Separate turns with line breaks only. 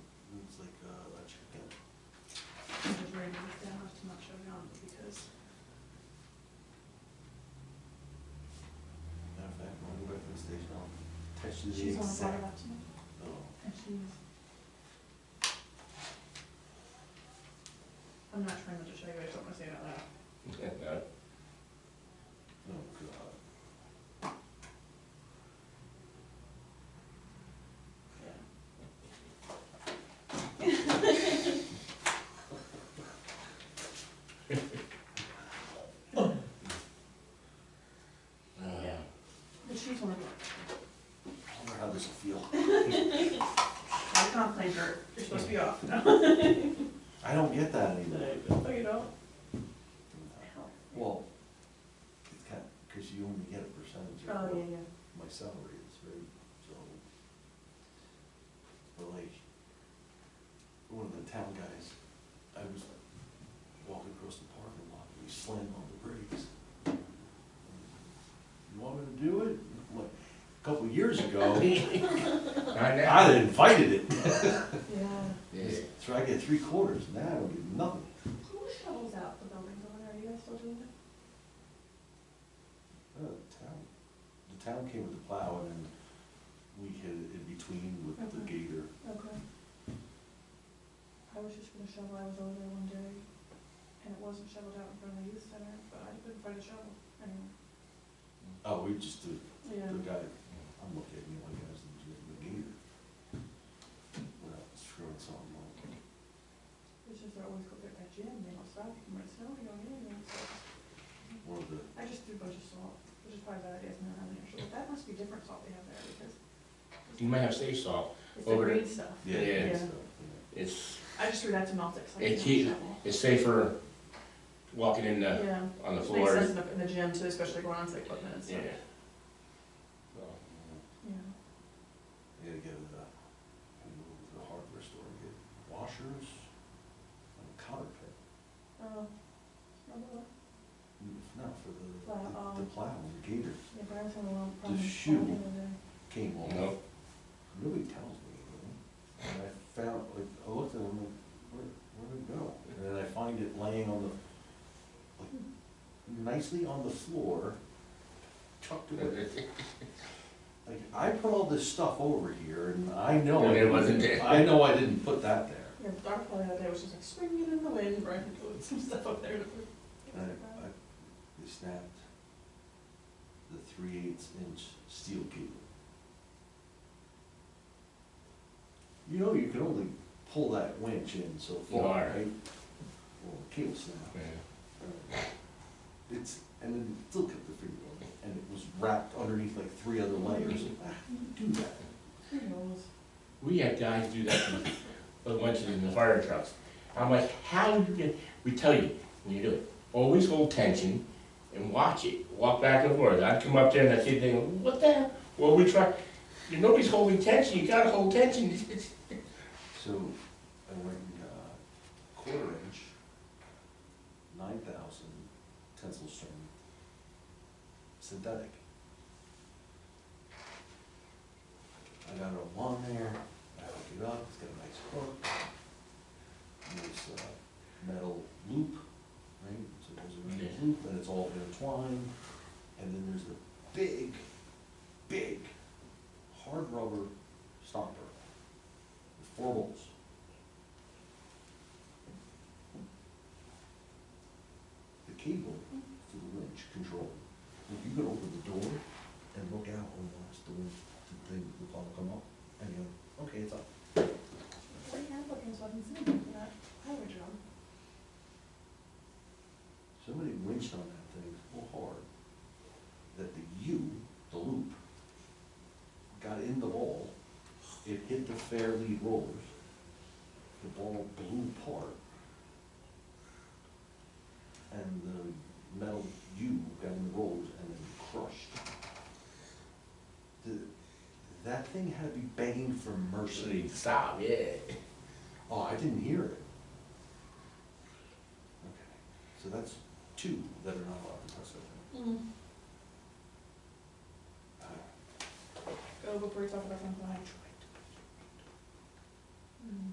uh, She
She's
didn't
on the board of
accept.
election,
No.
and she's. I'm not trying to show you, I just don't wanna say it out loud.
Oh, God. Uh,
Yeah. But she's one of them.
I wonder how this will feel.
I can't play her, you're supposed to be off. No,
I don't get that anymore.
No, you don't.
Well, it's kind, cause you only get a percentage
Oh,
of
yeah,
what
yeah.
my salary is, right? So. But like, one of the town guys, I was walking across the parking lot, and he slammed on the brakes. You want me to do it? Like, a couple of years ago,
Not
I had invited it,
Yeah.
Yeah.
so I get three quarters, now I don't get nothing.
Who shovels out the buildings over there, are you guys still doing that?
Uh, the town, the town came with the plow and then we hit it in between with the
Okay.
gator.
Okay. I was just gonna shovel, I was over there one day, and it wasn't shoveled out in front of the youth center, but I couldn't find a shovel anywhere.
Oh, we just did
Yeah.
The guy, I'm looking at you like I was legit the gator. Without screwing something up.
It's just I always go get that gym, they don't stop, you can run snow, you don't get anything, so.
One of the,
I just threw a bunch of salt, which is probably a bad idea, it's not having an issue, but that must be different salt they have there, because
You might have sea salt.
it's the
Over
green stuff.
yeah,
Yeah.
yeah. stuff,
It's,
I just threw that to melt it, so I
It
can
keep-
shovel.
it's safer walking in the,
Yeah,
on the
which makes sense
floor.
in the, in the gym too, especially going on to equipment and
Yeah.
stuff.
yeah.
Yeah.
You gotta go to the, gotta go to the hardware store and get washers and a cotter pit.
Oh, remember what?
No, for the,
Plow,
the- the
um,
plow, the gator
Yeah, but I was having a long
The
problem.
shoe.
finding it.
came
You
off.
know,
really tells me, you know? And I found, like, I looked at them, like, where, where'd it go? And then I find it laying on the, like, nicely on the floor, tucked away. Like, I put all this stuff over here, and I know.
And
I
it
didn't-
wasn't there.
I know I didn't put that there.
Yeah, the dark one the other day was just like swinging in the wind, right, and doing some stuff up there.
And I, I, they snapped the three eighths inch steel cable. You know, you can only pull that winch in so far,
Wire.
right? Well, the cable snapped.
Yeah.
It's, and then it still kept the finger on it, and it was wrapped underneath like three other layers. Ah, Do that.
Who knows?
We had guys do that, but once in the fire trucks. I'm like, how you get, we tell you, when you do it, always hold tension and watch it, walk back and forth. I'd come up there and I'd see they go, what the hell? Well, we try, nobody's holding tension, you gotta hold tension.
So I went and got quarter inch, nine thousand tensile string synthetic. I got it along there, I hooked it up, it's got a nice hook, nice uh, metal loop, right? So there's a metal
Yeah.
loop and it's all intertwined, and then there's a big, big hard rubber stopper with four bolts. The cable to the winch control. If you could open the door and look out and watch the winch, the thing, the call come up, and you go, okay, it's up.
What applicants wasn't sitting for that highway job?
Somebody winched on that thing so hard that the U, the loop, got in the ball. It hit the fair lead rollers. The ball blew apart. And the metal U got in the rollers and then crushed. The, that thing had to be begging for mercy.
Stop, yeah.
Oh, I didn't hear it. Okay, so that's two that are not allowed to touch that
Mm-hmm.
thing.
Go before you talk about something like. Mm.